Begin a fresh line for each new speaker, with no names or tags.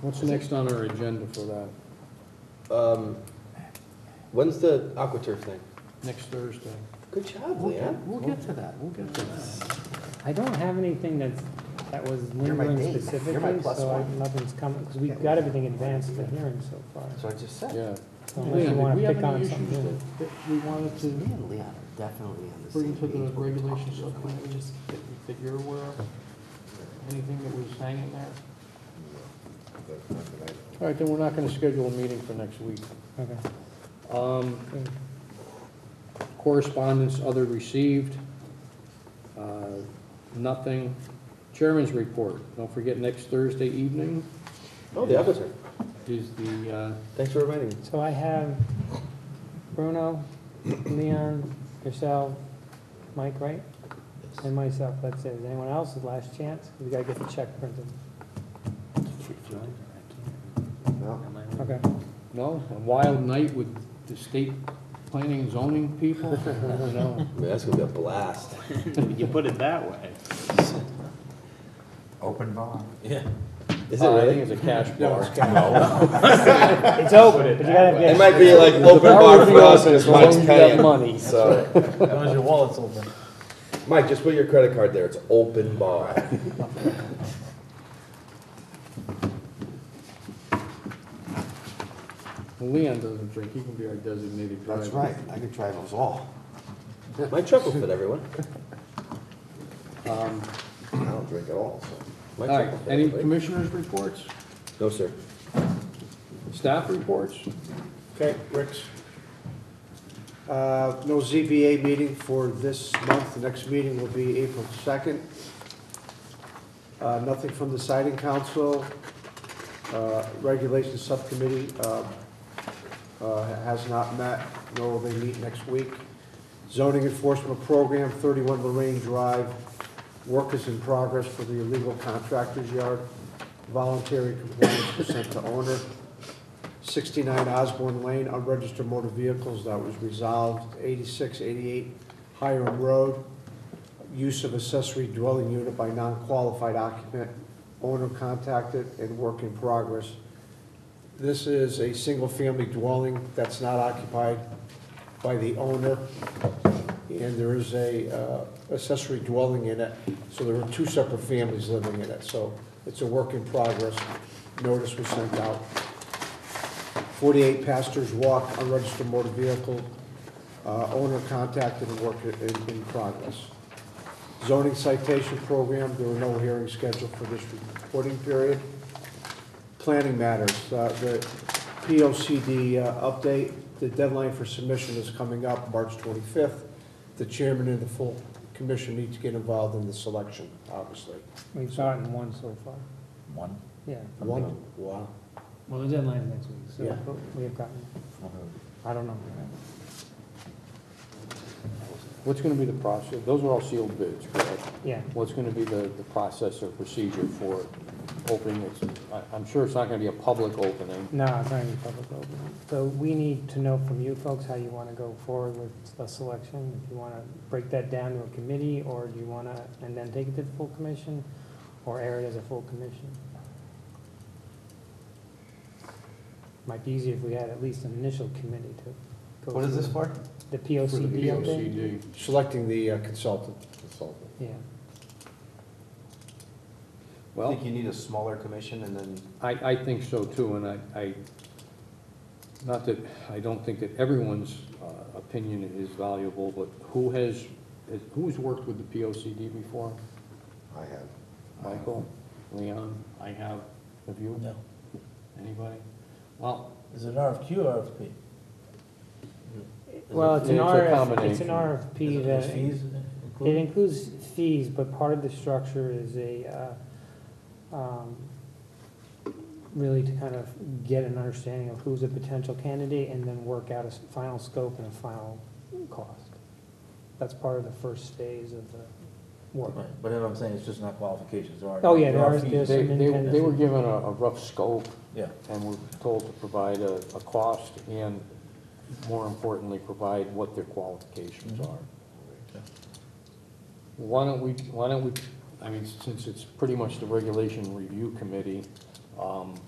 What's next on our agenda for that?
Um, when's the AquaTurf thing?
Next Thursday?
Good job,
We'll get,
Leanne.
we'll get to that, we'll get to that.
I don't have anything that's, that was
You're my
lingering
date. You're my
specifically,
plus
so
one.
nothing's coming, because we've got everything advanced to hearing so far.
That's what I just said.
Yeah.
So Unless you want
we
to
have
pick
any
on
issues
something new.
that- that We wanted
Me
to
and Leon are definitely on the
bring
same
to
page.
the
when we talk
regulations
about
subcommittee
languages.
that that you're aware of? Anything that was hanging there? All right, then we're not gonna schedule a meeting for next week.
Okay.
Um,
Good.
Correspondence, other received, uh, nothing. Chairman's report, don't forget, next Thursday evening
Oh, the AquaTurf.
is the, uh,
Thanks for reminding me.
So I have Bruno, Leon, yourself, Mike, right? And myself, that's it. Is anyone else? Last chance? We gotta get the check printed.
No.
Okay.
no, a wild night with the state planning and zoning people, you know.
I mean, that's gonna be a blast.
You put it that way.
Open bar.
Yeah. Is it
Uh, I
really?
think it's a cash bar.
It's open, but you gotta
It
get.
might be like open bar for us,
Open
because
as long
Mike's
as you got
paying.
money.
So,
As long as your wallet's open.
Mike, just put your credit card there. It's open bar.
Leon doesn't drink, he can be our designated driver.
That's right, I could drive us all.
My truck will fit everyone.
Um,
I don't drink at all, so.
All
My truck
right,
will fit
any
everybody.
commissioners' reports,
No, sir.
staff reports?
Okay, Ricks. Uh, No ZBA meeting for this month. The next meeting will be April 2nd. Uh, Nothing from the siding council. Uh, Regulations Subcommittee uh, uh, has not met, nor will they meet next week. Zoning Enforcement Program, 31 Lorraine Drive. Work is in progress for the illegal contractor's yard. Voluntary compliance percent to owner. 69 Osborne Lane, unregistered motor vehicles, that was resolved. 86, 88 Hiram Road, use of accessory dwelling unit by non-qualified occupant, owner contacted, and work in progress. This is a single-family dwelling that's not occupied by the owner, and there is a uh, accessory dwelling in it, so there are two separate families living in it, so it's a work in progress. Notice was sent out. 48 Pastors Walk, unregistered motor vehicle, uh, owner contacted and work in in progress. Zoning citation program, there were no hearings scheduled for this reporting period. Planning matters, uh, the POCD uh, update, the deadline for submission is coming up, March 25th. The chairman and the full commission need to get involved in the selection, Uh, obviously.
We've gotten one so far.
One.
Yeah.
One, wow.
Well, the deadline's next week,
Yeah.
so we have gotten, I don't know.
What's gonna be the process, those are all sealed bids, correct?
Yeah,
What's gonna be the, the process or procedure for opening this? I, I'm sure it's not gonna be a public opening.
no, it's not even public open. So we need to know from you folks how you want to go forward with the selection. If you want to break that down to a committee, or do you want to, and then take it to the full commission, or air it as a full commission? Might be easier if we had at least an initial committee to go.
What is this
through.
for?
The
For the
POCD update?
POCD.
Selecting the uh, consultant.
Yeah,
I
Well,
think you need a smaller commission and then
I, I think so too, and I, I, not that, I don't think that everyone's uh, opinion is valuable, but who has, has- who's worked with the POCD before?
I have.
Michael, Leon, I have, have you?
No.
Anybody? Well,
Is it RFQ or RFP?
well, it's an
It's a
RF, it's
combination.
an RFP that.
Is fees
It
included?
includes fees, but part of the structure is a, uh, um, really to kind of get an understanding of who's a potential candidate and then work out a s- final scope and a final cost. That's part of the first phase of the work.
Right, But what I'm saying, it's just not qualifications, or.
Oh, yeah, there are-
fees.
there's-
they, they, they were given a, a rough scope
Yeah.
and were told to provide a, a cost and more importantly, provide what their qualifications are. Why don't we, why don't we, I mean, since it's pretty much the regulation review committee, um,